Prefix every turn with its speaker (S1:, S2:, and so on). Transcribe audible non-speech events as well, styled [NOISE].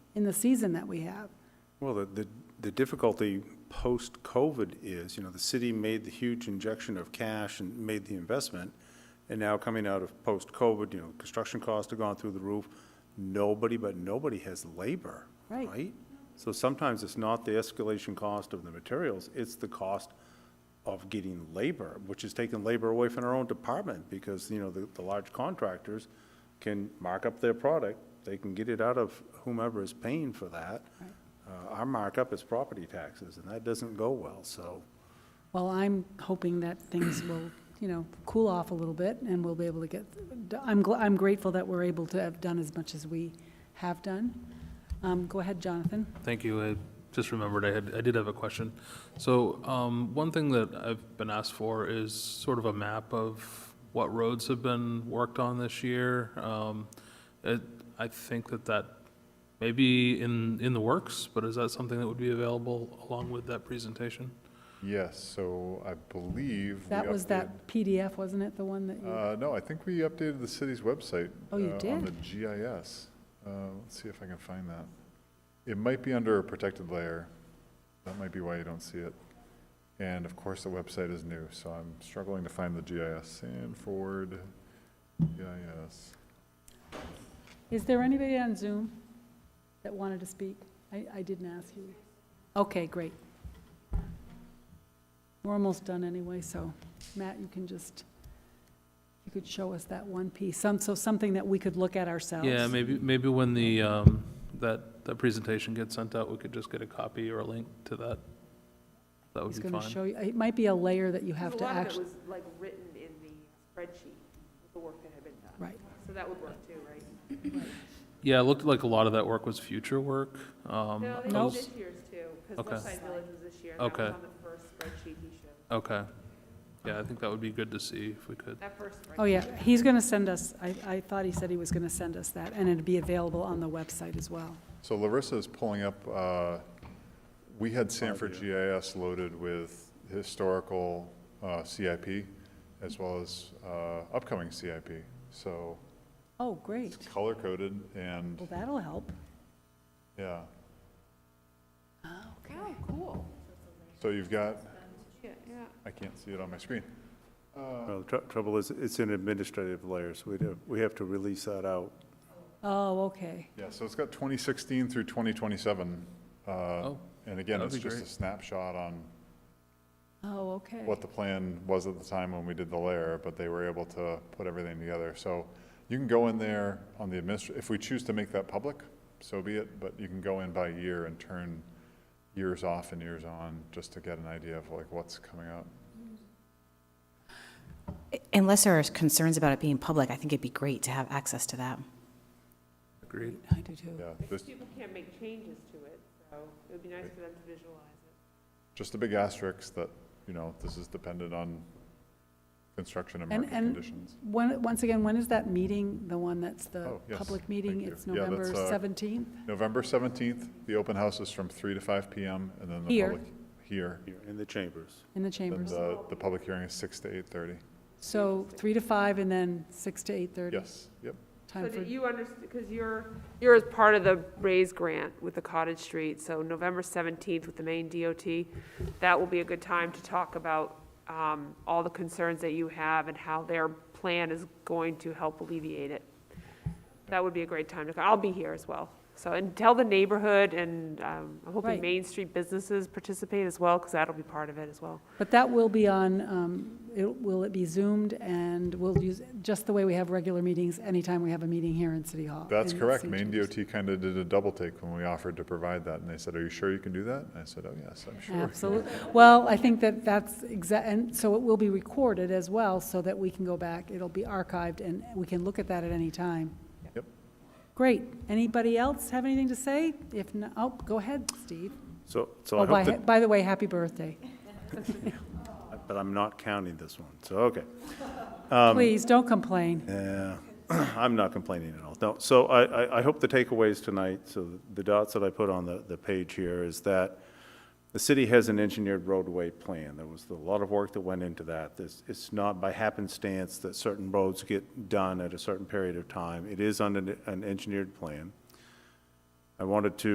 S1: in the season that we have.
S2: Well, the, the- the difficulty post-COVID is, you know, the city made the huge injection of cash and made the investment, and now coming out of post-COVID, you know, construction costs have gone through the roof. Nobody, but nobody has labor,
S1: Right.
S2: right? So sometimes it's not the escalation cost of the materials, it's the cost of getting labor, which is taking labor away from our own department, because, you know, the, the large contractors can mark up their product, they can get it out of whomever is paying for that. Uh, Our markup is property taxes, and that doesn't go well, so,
S1: Well, I'm hoping that things will, you know, cool off a little bit and we'll be able to get, I'm, gl- I'm grateful that we're able to have done as much as we have done. Um, go ahead, Jonathan.
S3: Thank you. I just remembered I had, I did have a question. So, um, one thing that I've been asked for is sort of a map of what roads have been worked on this year. Um, it, I think that that may be in, in the works, but is that something that would be available along with that presentation?
S4: Yes, so I believe. we
S1: That was
S4: updated-
S1: that PDF, wasn't it, the one that you,
S4: Uh, no, I think we updated the city's website.
S1: Oh, you
S4: uh,
S1: did?
S4: On the GIS. Uh, let's see if I can find that. It might be under a protected layer. That might be why you don't see it. And of course, the website is new, so I'm struggling to find the GIS. Sanford GIS.
S1: is there anybody on Zoom that wanted to speak? I, I didn't ask you. Okay, great. We're almost done anyway, so Matt, you can just, you could show us that one piece, some, so something that we could look at ourselves.
S3: Yeah, maybe, maybe when the, um, that, that presentation gets sent out, we could just get a copy or a link to that. That would
S1: He's
S3: be
S1: going to
S3: fine.
S1: show you, it might be a layer that you have
S5: Because
S1: to
S5: A
S1: actually,
S5: lot of it was like written in the spreadsheet, with the work that had been done.
S1: right.
S5: So that would work too, right?
S3: Yeah, it looked like a lot of that work was future work. Um,
S5: No,
S3: I
S5: they did
S3: was-
S5: this year's too, because
S3: Okay.
S5: Westside Village was this year. and That
S3: Okay.
S5: was on the first spreadsheet he showed,
S3: Okay. Yeah, I think that would be good to see if we could.
S5: that first spreadsheet.
S1: Oh, yeah, he's going to send us, I, I thought he said he was going to send us that, and it'd be available on the website as well.
S4: So Larissa is pulling up, uh, we had Sanford GIS loaded with historical uh, CIP as well as uh, upcoming CIP. So
S1: Oh, great.
S4: it's color-coded and,
S1: Well, that'll help.
S4: yeah.
S5: Oh, cool.
S4: So you've got,
S5: Yeah, yeah.
S4: I can't see it on my screen.
S2: well, the tr- trouble is, it's in administrative layers, we do, we have to release that out.
S1: Oh, okay.
S4: Yeah, so it's got 2016 through 2027. uh,
S3: Oh,
S4: And again,
S3: that'd
S4: it's
S3: be
S4: just a
S3: great.
S4: snapshot on
S1: Oh, okay.
S4: what the plan was at the time when we did the layer, but they were able to put everything together. So you can go in there on the administr, if we choose to make that public, so be it, but you can go in by year and turn years off and years on, just to get an idea of like what's coming up.
S6: Unless there are concerns about it being public, I think it'd be great to have access to that.
S3: agreed.
S1: I do too.
S4: Yeah, there's
S5: People can't make changes to it, so it would be nice for them to visualize it.
S4: just a big asterisk that, you know, this is dependent on construction and
S1: And-
S4: market
S1: and-
S4: conditions.
S1: When, once again, when is that meeting, the one that's the
S4: Oh, yes,
S1: public meeting?
S4: thank you.
S1: It's
S4: Yeah, that's,
S1: November
S4: uh,
S1: 17th?
S4: November 17th, the open house is from 3 to 5 PM, and then the
S1: Here.
S4: public, here.
S2: here In the chambers.
S1: In the
S4: Then uh,
S1: chambers.
S4: the, the public hearing is 6 to 8:30.
S1: So 3 to 5 and then 6 to 8:30?
S4: Yes, yep.
S1: Time
S5: So
S1: for,
S5: did you understand, because you're, you're as part of the raise grant with the Cottage Street, so November 17th with the Maine DOT, that will be a good time to talk about um, all the concerns that you have and how their plan is going to help alleviate it. That would be a great time to, I'll be here as well. So, and tell the neighborhood, and um, I'm hoping
S1: Right.
S5: Main Street businesses participate as well, because that'll be part of it as well.
S1: but that will be on, um, it- will it be Zoomed? And we'll use, just the way we have regular meetings, anytime we have a meeting here in City Hall.
S4: That's
S1: in
S4: correct.
S1: St.
S4: Maine
S1: James.
S4: DOT kind of did a double take when we offered to provide that, and they said, "Are you sure you can do that?" And I said, "Oh, yes, I'm sure."
S1: Absolutely. Well, I think that that's exact, and so it will be recorded as well, so that we can go back, it'll be archived, and we can look at that at any time.
S4: Yep.
S1: Great. Anybody else have anything to say? If not, oh, go ahead, Steve.
S2: So, so I
S1: Oh,
S2: hope
S1: by,
S2: that,
S1: by the way, happy birthday.
S2: but I'm not counting this one, so, okay. Um,
S1: Please, don't complain.
S2: Yeah, [CLEARS THROAT] I'm not complaining at all. No, so I, I, I hope the takeaways tonight, so the dots that I put on the, the page here is that the city has an engineered roadway plan. There was a lot of work that went into that. This, it's not by happenstance that certain roads get done at a certain period of time. It is under an engineered plan. I wanted to